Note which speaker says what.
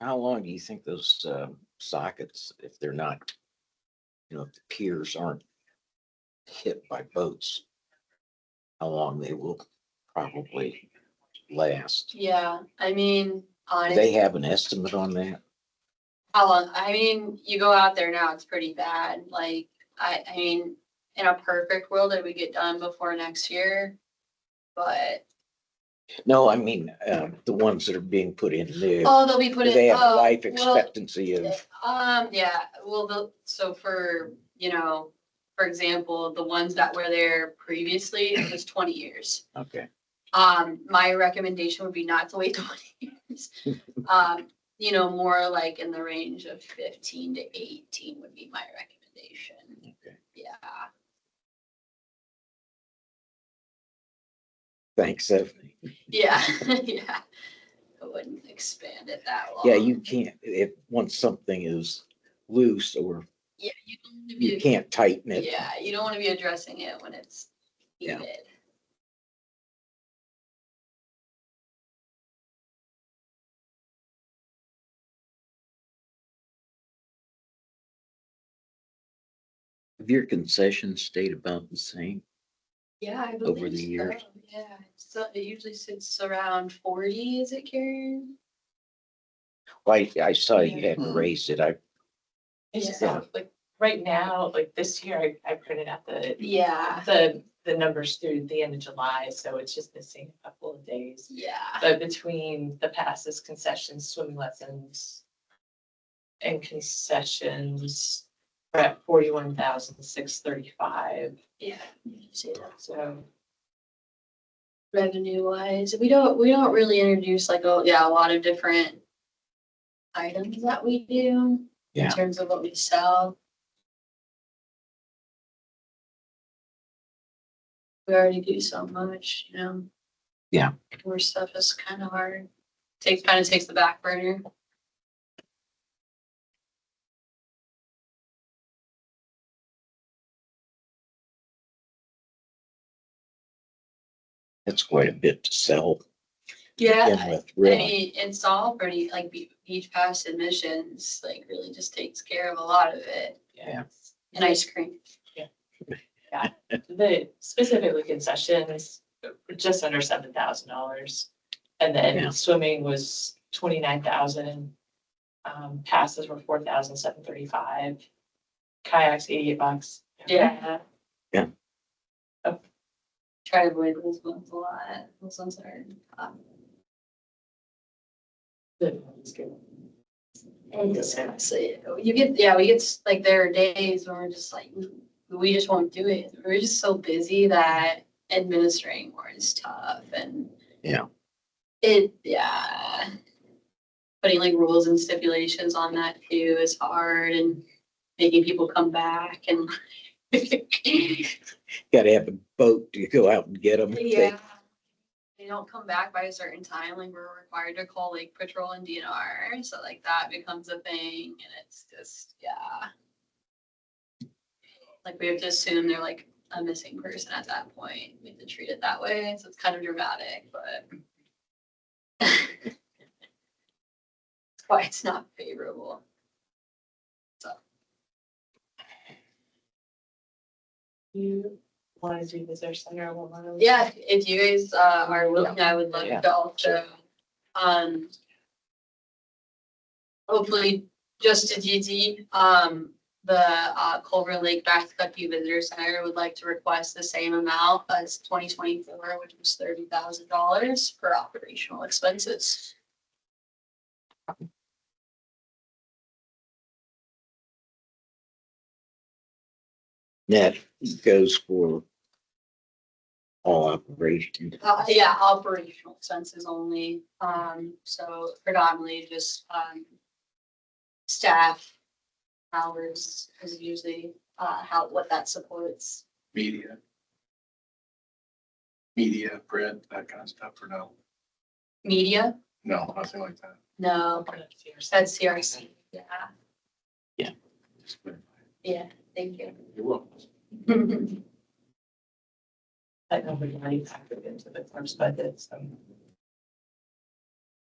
Speaker 1: How long do you think those uh, sockets, if they're not, you know, if the piers aren't hit by boats, how long they will probably last?
Speaker 2: Yeah, I mean,
Speaker 1: Do They
Speaker 2: honestly,
Speaker 1: have an estimate on that?
Speaker 2: how long, I mean, you go out there now, it's pretty bad, like, I, I mean, in a perfect world, it would get done before next year. But,
Speaker 1: No, I mean, um, the ones that are being put in there, do
Speaker 2: oh, they'll be put in.
Speaker 1: they have a
Speaker 2: oh,
Speaker 1: life
Speaker 2: well,
Speaker 1: expectancy of,
Speaker 2: Um, yeah, well, the, so for, you know, for example, the ones that were there previously, it was twenty years.
Speaker 1: okay,
Speaker 2: Um, my recommendation would be not to wait twenty years. Um, you know, more like in the range of fifteen to eighteen would be my recommendation.
Speaker 1: okay.
Speaker 2: Yeah,
Speaker 1: Thanks, Stephanie.
Speaker 2: yeah, yeah. I wouldn't expand it that long.
Speaker 1: Yeah, you can't, if, once something is loose or
Speaker 2: Yeah, you don't want to
Speaker 1: you
Speaker 2: be,
Speaker 1: can't tighten it.
Speaker 2: yeah, you don't want to be addressing it when it's
Speaker 1: Yeah.
Speaker 2: needed.
Speaker 1: Have your concessions stayed about the same?
Speaker 2: Yeah, I
Speaker 1: over
Speaker 2: believe
Speaker 1: the years?
Speaker 2: so. Yeah, so it usually sits around forty, is it Karen?
Speaker 1: Well, I, I saw you had
Speaker 3: Hmm.
Speaker 1: raised it. I,
Speaker 3: It's just
Speaker 1: Yeah.
Speaker 3: like right now, like this year, I, I printed out the,
Speaker 2: Yeah,
Speaker 3: the, the numbers through the end of July, so it's just missing a couple of days.
Speaker 2: yeah,
Speaker 3: But between the passes, concessions, swimming lessons and concessions, we're at forty-one thousand six thirty-five,
Speaker 2: yeah. See that.
Speaker 3: so.
Speaker 2: Revenue wise, we don't, we don't really introduce like, oh, yeah, a lot of different items that we do
Speaker 1: Yeah.
Speaker 2: in terms of what we sell. We already do so much, you know?
Speaker 1: Yeah.
Speaker 2: More stuff is kind of hard. Takes, kind of takes the back burner.
Speaker 1: that's quite a bit to sell. to
Speaker 2: Yeah,
Speaker 1: begin
Speaker 2: I-
Speaker 1: with,
Speaker 2: I
Speaker 1: Really,
Speaker 2: mean, it's all pretty, like, be- beach pass admissions, like, really just takes care of a lot of it,
Speaker 1: Yeah.
Speaker 2: and ice cream.
Speaker 3: The, specifically concessions, just under seven thousand dollars. And
Speaker 1: Yeah.
Speaker 3: then swimming was twenty-nine thousand. Um, passes were four thousand seven thirty-five. Kayaks eighty-eight bucks.
Speaker 2: Yeah.
Speaker 1: Yeah.
Speaker 3: Oh.
Speaker 2: Try to avoid those ones a lot, those ones are, um,
Speaker 3: Good, that's good.
Speaker 2: and
Speaker 3: Yes, ma'am.
Speaker 2: so, you get, yeah, we get, s- like, there are days where we're just like, we just won't do it, we're just so busy that administering more is tough, and.
Speaker 1: Yeah.
Speaker 2: It, yeah. Putting like rules and stipulations on that too is hard and making people come back and.
Speaker 1: gotta have a boat to go out and get them.
Speaker 2: Yeah. uh, They don't come back by a certain time, like we're required to call like patrol and DNR, so like that becomes a thing and it's just, yeah. Like we have to assume they're like a missing person at that point. We have to treat it that way, so it's kind of dramatic, but. That's why it's not favorable.
Speaker 3: You want to do visitor center one more?
Speaker 2: Yeah, if you guys uh, are willing, I would love
Speaker 1: Yeah.
Speaker 2: to also, um, hopefully, just to DD, um, the uh, Culver Lake Backcountry Visitor Center would like to request the same amount as twenty twenty-four, which was thirty thousand dollars for operational expenses.
Speaker 1: That goes for all operations.
Speaker 2: Uh, yeah, operational expenses only, um, so predominantly just, um, staff hours is usually, uh, how, what that supports.
Speaker 4: media. Media, print, that kind of stuff, or no?
Speaker 2: Media?
Speaker 4: No, nothing like that.
Speaker 2: No, that's CRC, yeah, yeah, thank you.
Speaker 4: You're welcome.
Speaker 3: That nobody really factored into the firm's budget, so.